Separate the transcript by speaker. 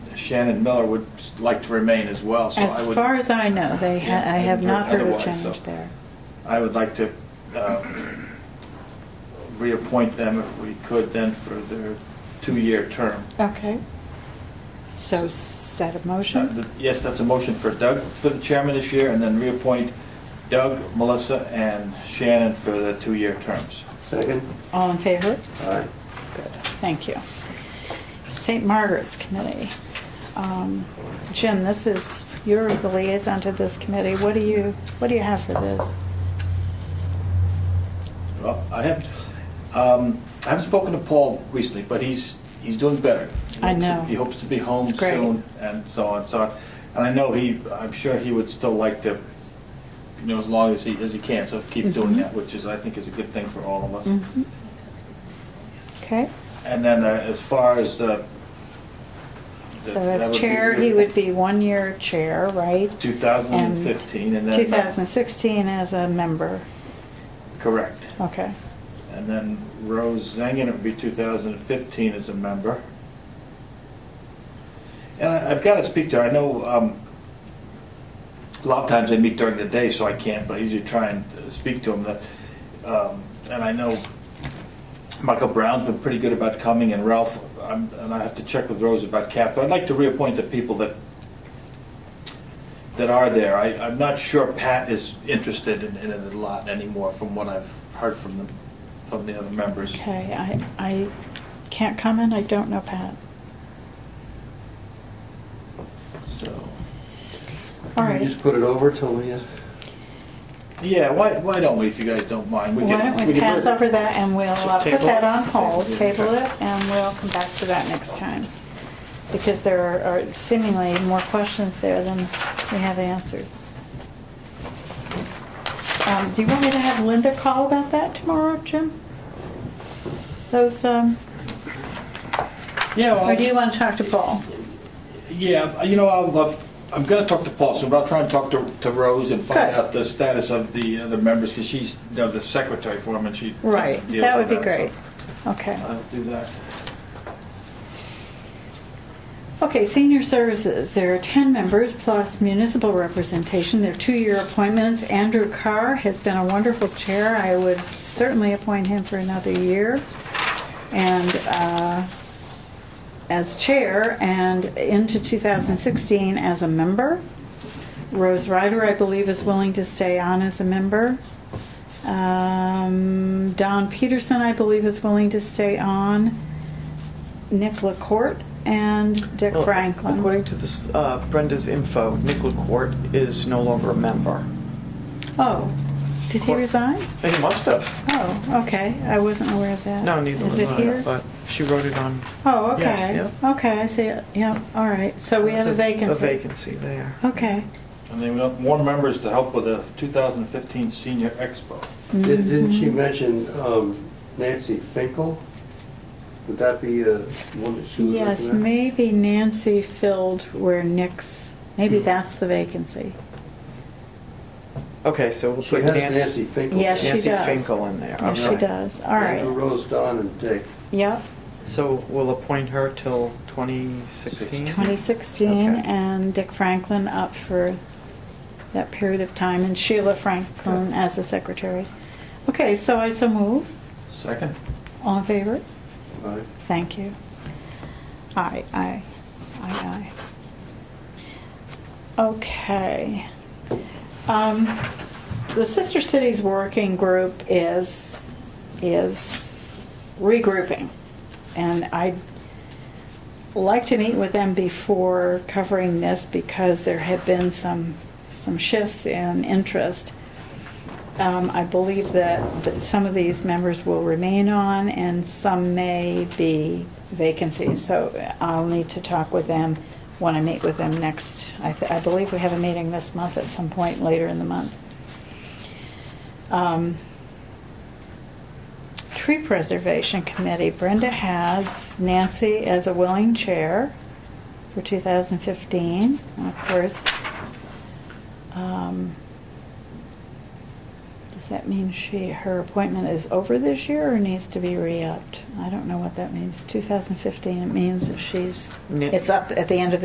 Speaker 1: Shannon Miller would like to remain as well, so I
Speaker 2: As
Speaker 1: would.
Speaker 2: far as I know, they, ha-
Speaker 1: Yeah,
Speaker 2: I have
Speaker 1: and
Speaker 2: not heard a
Speaker 1: otherwise, so.
Speaker 2: change there.
Speaker 1: I would like to uh, reappoint them if we could then for their two-year term.
Speaker 2: Okay. So is that a
Speaker 1: Uh,
Speaker 2: motion?
Speaker 1: th- Yes, that's a motion for Doug, for the chairman this year, and then reappoint Doug, Melissa, and Shannon for the two-year terms.
Speaker 3: Second?
Speaker 2: All in favor?
Speaker 3: Aye.
Speaker 2: Good, thank you. St. Margaret's Committee. Um, Jim, this is, you're the liaison to this committee. What do you, what do you have for this?
Speaker 1: Well, I haven't, um, I haven't spoken to Paul recently, but he's, he's doing better. He
Speaker 2: I
Speaker 1: hopes-
Speaker 2: know.
Speaker 1: He hopes to be home
Speaker 2: It's great.
Speaker 1: soon and so on, so, on. and I know he, I'm sure he would still like to, you know, as long as he, as he can, so keep doing
Speaker 2: Mhm.
Speaker 1: that, which is, I think is a good thing for all of us.
Speaker 2: Mhm. Okay,
Speaker 1: And then uh, as far as, uh. the-
Speaker 2: so
Speaker 1: that would
Speaker 2: as
Speaker 1: be
Speaker 2: chair, he would be one-year chair, right?
Speaker 1: 2015 and then. uh,
Speaker 2: 2016 as a member.
Speaker 1: Correct.
Speaker 2: Okay,
Speaker 1: And then Rose Zangen would be 2015 as a member. And I- I've got to speak to her, I know um, a lot of times they meet during the day, so I can't, but I usually try and uh, speak to them. That, um, And I know Michael Brown's been pretty good about coming, and Ralph, I'm- and I have to check with Rose about Cap. I'd like to reappoint the people that, that are there. I- I'm not sure Pat is interested in in it a lot anymore, from what I've heard from the, from the other members.
Speaker 2: okay, I, I can't comment, I don't know Pat.
Speaker 1: So,
Speaker 2: All
Speaker 3: You
Speaker 2: right,
Speaker 3: just put it over till we, uh,
Speaker 1: yeah, why, why don't we, if you guys don't mind? we
Speaker 2: why
Speaker 1: can-
Speaker 2: don't we
Speaker 1: can-
Speaker 2: pass over that and we'll uh,
Speaker 1: Just
Speaker 2: put
Speaker 1: table
Speaker 2: that
Speaker 1: it?
Speaker 2: on hold,
Speaker 1: Yeah,
Speaker 2: table
Speaker 1: okay.
Speaker 2: it, and we'll come back to that next time. Because there are- are seemingly more questions there than we have answers. Um, Do you want me to have Linda call about that tomorrow, Jim? Those, um,
Speaker 1: Yeah, well,
Speaker 2: or do you want to talk to Paul?
Speaker 1: yeah, you know, I'll, uh, I'm gonna talk to Paul soon, but I'll try and talk to, to Rose and find
Speaker 2: Good.
Speaker 1: out the status of the other members, because she's, you know, the secretary for him, and she.
Speaker 2: Right,
Speaker 1: deals
Speaker 2: that would
Speaker 1: with
Speaker 2: be
Speaker 1: so
Speaker 2: great. Okay.
Speaker 1: I'll do that.
Speaker 2: Okay, senior services, there are 10 members plus municipal representation. They're two-year appointments. Andrew Carr has been a wonderful chair. I would certainly appoint him for another year. And uh, as chair and into 2016 as a member. Rose Ryder, I believe, is willing to stay on as a member. Um, Don Peterson, I believe, is willing to stay on. Nick LaCourte and Dick
Speaker 4: Well,
Speaker 2: Franklin.
Speaker 4: Oh, According to this, uh, Brenda's info, Nick LaCourte is no longer a member.
Speaker 2: Oh, did he
Speaker 4: Court.
Speaker 2: resign?
Speaker 4: He must have.
Speaker 2: Oh, okay, I wasn't aware of that.
Speaker 4: No, neither
Speaker 2: Is
Speaker 4: was
Speaker 2: it
Speaker 4: I,
Speaker 2: here?
Speaker 4: but she wrote it on.
Speaker 2: Oh, okay,
Speaker 4: Yes,
Speaker 2: okay, I see, it. yeah, all right, so we have a
Speaker 4: A
Speaker 2: vacancy.
Speaker 4: vacancy there.
Speaker 2: Okay.
Speaker 1: And then we want more members to help with the 2015 Senior Expo.
Speaker 3: did-
Speaker 2: Mm-hmm.
Speaker 3: didn't she mention um, Nancy Finkel? Would that be uh, one that she would recommend?
Speaker 2: Yes, maybe Nancy filled where Nick's, maybe
Speaker 3: Hmm.
Speaker 2: that's the vacancy.
Speaker 4: Okay, so we'll
Speaker 3: She
Speaker 4: put
Speaker 3: has
Speaker 4: Nancy
Speaker 3: Nancy Finkel.
Speaker 2: Yes, she
Speaker 4: Nancy
Speaker 2: does.
Speaker 4: Finkel in there.
Speaker 2: Yes, she
Speaker 4: Okay.
Speaker 2: does, all
Speaker 3: Andrew
Speaker 2: right,
Speaker 3: Rose, Mm-hmm. Don, and Dick.
Speaker 2: yep,
Speaker 4: So we'll appoint her till 2016?
Speaker 2: 2016,
Speaker 4: Okay.
Speaker 2: and Dick Franklin up for that period of time, and Sheila Franklin as the secretary. Okay, so I so move,
Speaker 1: Second?
Speaker 2: all in favor?
Speaker 3: Aye.
Speaker 2: Thank you. Aye, aye, aye, aye. Okay. Um, The Sister Cities Working Group is, is regrouping. And I'd like to meet with them before covering this because there have been some, some shifts in interest. Um, I believe that, that some of these members will remain on and some may be vacancies. So I'll need to talk with them when I meet with them next. I, th- I believe we have a meeting this month at some point later in the month. Um, Tree Preservation Committee, Brenda has Nancy as a willing chair for 2015. And of course, um, does that mean she, her appointment is over this year or needs to be re-upped? I don't know what that means. 2015, it means that she's,
Speaker 4: Ni-
Speaker 2: it's up at the end of